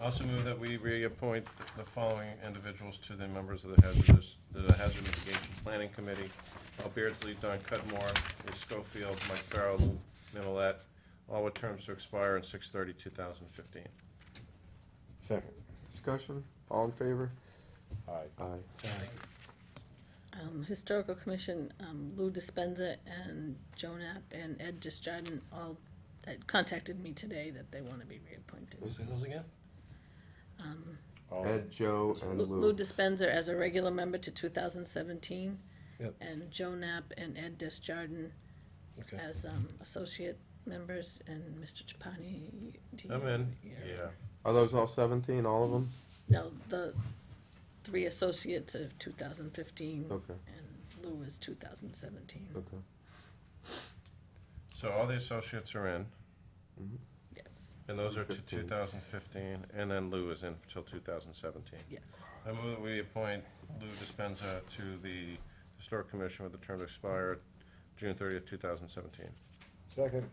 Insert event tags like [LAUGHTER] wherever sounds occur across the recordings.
Also move that we reappoint the following individuals to the members of the hazardous, the Hazard Mitigation Planning Committee. Al Beardsley, Don Cudmore, Lee Schofield, Mike Farrell, Lou Millet, all with terms to expire on 2015. Second. Discussion, all in favor? Aye. Aye. Um, Historical Commission, um, Lou Dispenza and Joan App and Ed Justardon all uh, contacted me today that they want to be reappointed. Say those again? Um, All- Ed, Joe, and Lou Lou Lou. Dispenza as a regular member to 2017. Yep. And Joan App and Ed Justardon Okay. as um, associate members, and Mr. Chapani. do you- I'm in, you're- yeah. Are those all seventeen, all of them? No, the three associates of 2015, Okay, and Lou is 2017, okay. So all the associates are in, yes, and those are to 2015. 2015, and then Lou is in till 2017. yes. I move that we appoint Lou Dispenza to the Historic Commission with a term to expire June thirtieth, two thousand seventeen. Second.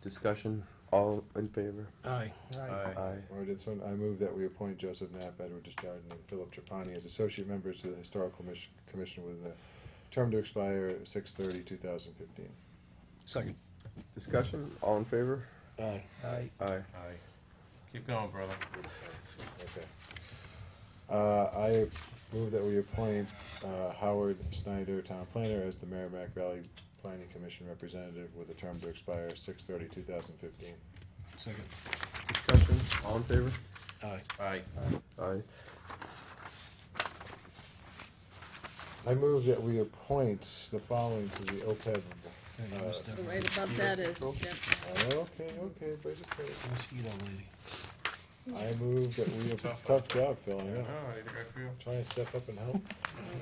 Discussion, all in favor? Aye. Aye. Aye. Or this one, I move that we appoint Joseph Knapp, Edward Justardon, and Philip Trapani as associate members to the Historical Commission, Commission with a term to expire six thirty, two thousand fifteen. Second. Discussion, all in favor? Aye. Aye. Aye. Aye. Keep going, brother. Okay. Uh, I move that we appoint, uh, Howard Snyder, town planner, as the Merrimack Valley Planning Commission representative with a term to expire six thirty, two thousand fifteen. Second. Discussion, all in favor? Aye. Aye. Aye. I move that we appoint the following to the OPEB. Hey, uh, Mr. Right above that is, yep, Okay, okay, but it's okay. Mosquito lady. I move that we, it's a tough job, Phil, I Oh, I know. need to go for you. Trying to step up and help.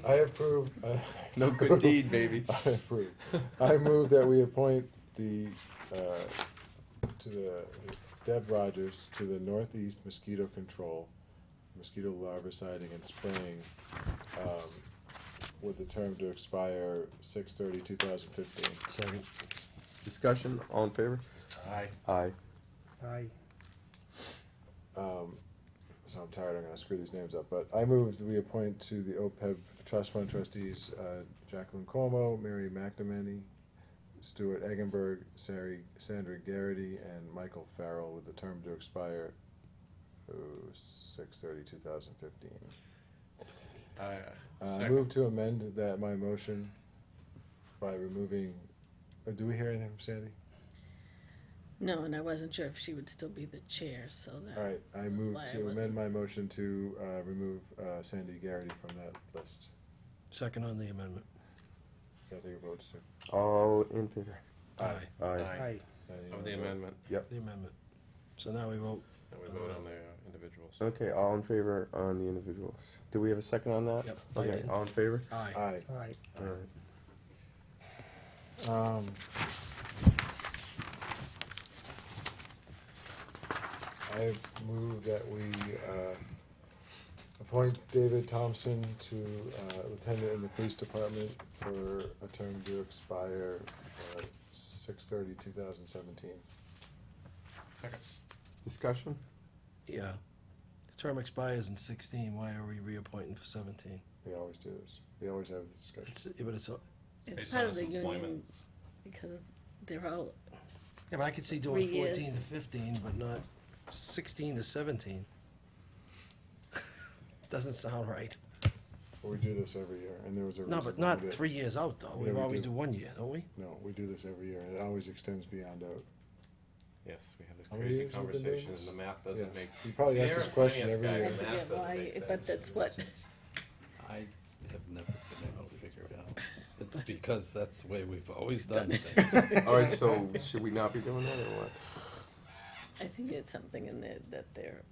I approve. I- [LAUGHS] No [LAUGHS] good deed, baby. I approve. I move that we appoint the, uh, to the, Deb Rogers to the Northeast Mosquito Control, mosquito larviciding and spraying, um, with the term to expire six thirty, two thousand fifteen. Second. Discussion, all in favor? Aye. Aye. Aye. um, so I'm tired, I'm gonna screw these names up, but I move that we appoint to the OPEB Trust Fund trustees, uh, Jacqueline Como, Mary McNamee, Stuart Eggenberg, Sari, Sandra Garrity, and Michael Farrell with the term to expire, oh, six thirty, two thousand fifteen. Aye. Uh, I Second. move to amend that, my motion by removing, oh, do we hear anything from Sandy? no, and I wasn't sure if she would still be the chair, so All that, right, I That's move why I to amend wasn't- my motion to, uh, remove, uh, Sandy Garrity from that list. Second on the amendment. Gotta take your votes too. All in favor? Aye. Aye. Aye. uh, Of the amendment, The amendment. So now we vote. and we vote on the uh, individuals. Okay, all in favor on the individuals. Do we have a second on that? Yep. Okay, all in favor? Aye. Aye. Aye. All right. Um, I move that we, uh, appoint David Thompson to, uh, lieutenant in the police department for a term to expire, uh, six thirty, two thousand seventeen. Second. Discussion? Yeah. The term expires in sixteen. Why are we reappointing for seventeen? We always do this. We always have this discussion. It's, yeah, but it's, a- it's Based part on of the his union, employment. because they're all, yeah, but I could see Three doing years. fourteen to fifteen, but not sixteen to seventeen. [LAUGHS] Doesn't sound right. We do this every year, and there was a reason. No, why but we not did it. three years out though. Yeah, We we always do. do one year, don't we? No, we do this every year, and it always extends beyond out. Yes, we have this How many crazy years have we been doing conversation, this? and the math Yes. doesn't make. You probably See, ask you're this a question finance every guy, year. I the math forget doesn't why, make but sense. that's what, I have never been able to figure it out. [LAUGHS] It's because that's the way we've always done things. All right, so should we not be doing that or what? I think it's something in there that they're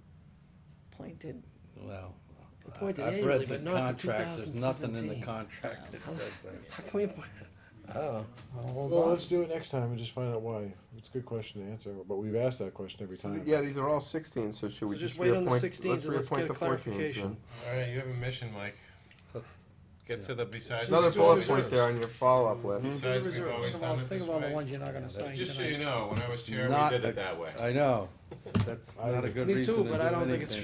appointed, [LAUGHS] Well, I- Appointed I've annually, read but the not to contracts, there's nothing in the 2017. contract that says that. How can we appoint? [LAUGHS] oh. I don't know. Well, let's do it next time and just find out why. It's a good question to answer, but we've asked that question every So, time. Yeah, these are all sixteen, so should So we just just wait on reappoint? the sixteen and let's reappoint get a the 14s then. clarification. All right, you have a mission, Mike. Let's- Get to the besides. Another we've bullet always- point there on your follow-up list. Besides, we've always done it this Think of all the way. ones you're not gonna sign Just so you tonight. know, when I was chair, Not we did a- it that way. [LAUGHS] I know, that's I- not a good Me reason too, to do but I don't think anything. it's